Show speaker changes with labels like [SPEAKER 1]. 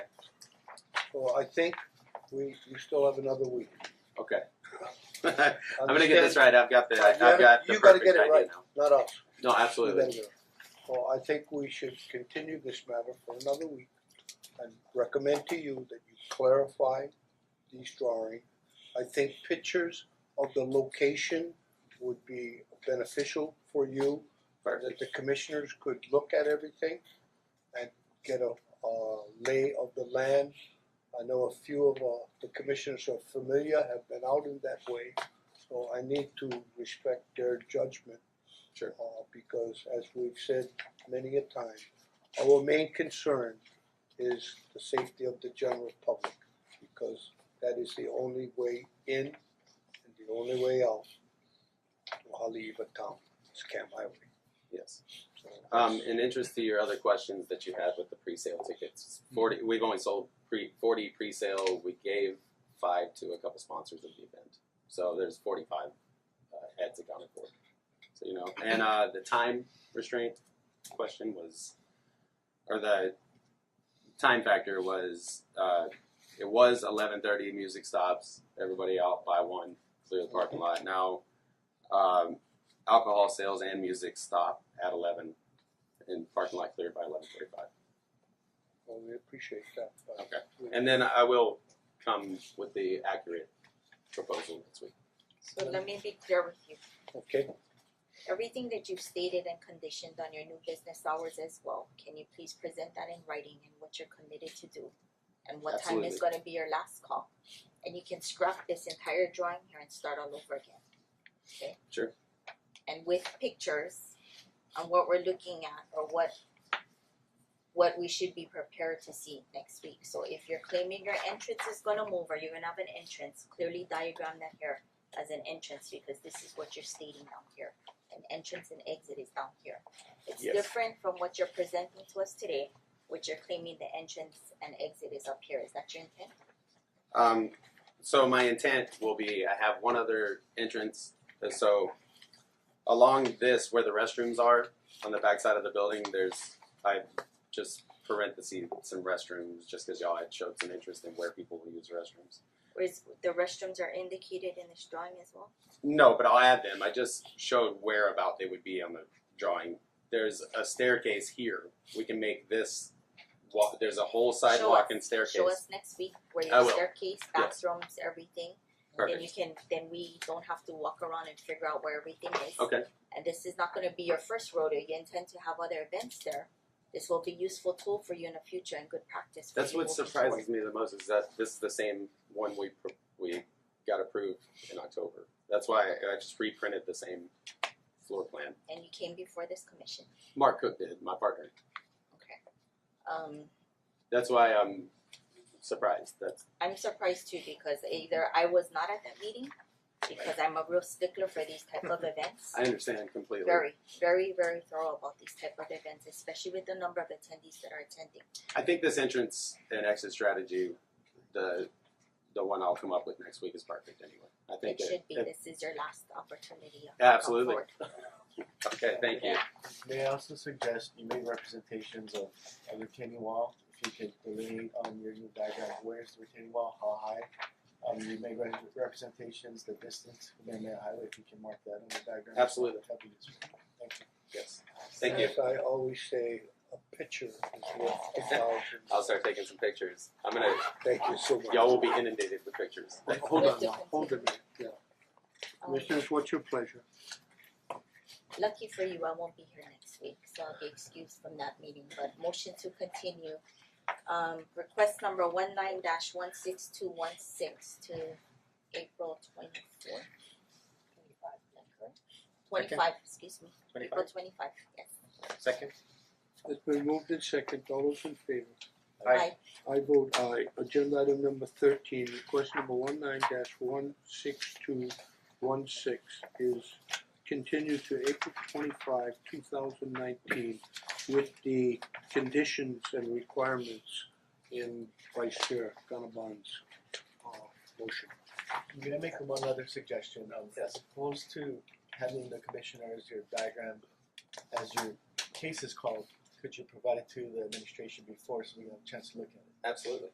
[SPEAKER 1] So I think we, we still have another week.
[SPEAKER 2] Okay. I'm gonna get this right. I've got the. I've
[SPEAKER 1] Yeah,
[SPEAKER 2] got the
[SPEAKER 1] you gotta
[SPEAKER 2] perfect
[SPEAKER 1] get it
[SPEAKER 2] idea
[SPEAKER 1] right.
[SPEAKER 2] now.
[SPEAKER 1] Not us.
[SPEAKER 2] No,
[SPEAKER 1] You
[SPEAKER 2] absolutely.
[SPEAKER 1] gotta do it. So I think we should continue this matter for another week and recommend to you that you clarify these drawings. I think pictures of the location would be beneficial for you, that the commissioners could look at everything and get a uh lay of the land. I know a few of uh the commissioners are familiar, have been out in that way, so I need to respect their judgment
[SPEAKER 2] Sure.
[SPEAKER 1] uh, because as we've said many a time, our main concern is the safety of the general public, because that is the only way in and the only way out to Haleiwa Town, it's Camp Highway.
[SPEAKER 2] Yes.
[SPEAKER 1] So
[SPEAKER 2] Um, in interest to your other questions that you had with the pre-sale tickets, forty. We've only sold pre forty pre-sale. We gave five to a couple sponsors of the event, so there's forty-five uh, heads accounted for. So you know, and uh, the time restraint question was, or the time factor was, uh, it was eleven thirty. Music stops. Everybody out by one. Clear the parking lot. Now, um, alcohol sales and music stop at eleven, and parking lot cleared by eleven forty-five.
[SPEAKER 1] Well, we appreciate that, but
[SPEAKER 2] Okay.
[SPEAKER 1] we-
[SPEAKER 2] And then I will come with the accurate proposal next week.
[SPEAKER 3] So let me be clear with you,
[SPEAKER 1] Okay,
[SPEAKER 3] everything that you've stated and conditioned on your new business hours as well, can you please present that in writing and what you're committed to do? And what time
[SPEAKER 2] Absolutely.
[SPEAKER 3] is gonna be your last call, and you can scrap this entire drawing here and start all over again, okay?
[SPEAKER 2] Sure.
[SPEAKER 3] And with pictures on what we're looking at or what what we should be prepared to see next week, so if you're claiming your entrance is gonna move or you're gonna have an entrance, clearly diagram that here as an entrance because this is what you're stating down here. An entrance and exit is down here. It's
[SPEAKER 2] Yes.
[SPEAKER 3] different from what you're presenting to us today, which you're claiming the entrance and exit is up here. Is that your intent?
[SPEAKER 2] Um, so my intent will be, I have one other entrance, and so along this, where the restrooms are, on the backside of the building, there's, I just parentheses some restrooms, just cause y'all had showed some interest in where people will use restrooms.
[SPEAKER 3] Or is the restrooms are indicated in this drawing as well?
[SPEAKER 2] No, but I'll add them, I just showed where about they would be on the drawing. There's a staircase here, we can make this, wa- there's a whole sidewalk and staircase.
[SPEAKER 3] Show us next week where
[SPEAKER 2] I
[SPEAKER 3] your
[SPEAKER 2] will.
[SPEAKER 3] staircase,
[SPEAKER 2] Yeah.
[SPEAKER 3] bathrooms, everything. Then you
[SPEAKER 2] Perfect,
[SPEAKER 3] can, then we don't have to walk around and figure out where everything is.
[SPEAKER 2] okay,
[SPEAKER 3] and this is not gonna be your first rodeo, you intend to have other events there. This will be useful tool for you in the future and good practice for you
[SPEAKER 2] that's what
[SPEAKER 3] moving
[SPEAKER 2] surprises
[SPEAKER 3] forward.
[SPEAKER 2] me the most, is that this is the same one we, pro- we got approved in October. That's why I I just reprinted the same floor plan,
[SPEAKER 3] And you came before this commission,
[SPEAKER 2] Mark Cook did, my partner.
[SPEAKER 3] okay. Um,
[SPEAKER 2] That's why I'm surprised, that's,
[SPEAKER 3] I'm surprised too because either I was not at that meeting, because I'm a real stickler for these type of events.
[SPEAKER 2] I understand completely.
[SPEAKER 3] Very, very, very thorough about these type of events, especially with the number of attendees that are attending.
[SPEAKER 2] I think this entrance and exit strategy, the the one I'll come up with next week is perfect anyway. I think
[SPEAKER 3] It should be,
[SPEAKER 2] it-
[SPEAKER 3] this is your last opportunity of
[SPEAKER 2] Absolutely. Okay, thank you.
[SPEAKER 4] May I also suggest you make representations of a retaining wall, if you could delineate on your new diagram, where's the retaining wall, how high? Um you make re- representations, the distance, from the highway, if you can mark that on the diagram.
[SPEAKER 2] Absolutely.
[SPEAKER 4] That'd be useful, thank you.
[SPEAKER 2] Yes. Thank you.
[SPEAKER 1] as I always say, a picture is worth a thousand.
[SPEAKER 2] I'll start taking some pictures. I'm gonna
[SPEAKER 1] Thank you so much.
[SPEAKER 2] y'all will be inundated with pictures.
[SPEAKER 1] Hold on, now, hold
[SPEAKER 3] Hold
[SPEAKER 1] a minute, yeah.
[SPEAKER 3] um,
[SPEAKER 1] Commissioners, what's your pleasure?
[SPEAKER 3] Lucky for you, I won't be here next week, so I'll be excused from that meeting, but motion to continue. Um request number one nine dash one six two one six to April twenty four. Twenty five, is that correct? Twenty five, excuse me, April twenty five, yes.
[SPEAKER 5] Second.
[SPEAKER 1] It's been moved in second, all those in favor?
[SPEAKER 5] Aye.
[SPEAKER 1] I vote aye. Agenda item number thirteen, request number one nine dash one six two one six is continued to April twenty-five, two thousand nineteen with the conditions and requirements in Vice Chair Gannabon's uh motion.
[SPEAKER 4] I'm gonna make one other suggestion, um as opposed to having the commissioners your diagram as your case is called, could you provide it to the administration before so we have a chance to look at it?
[SPEAKER 2] Absolutely.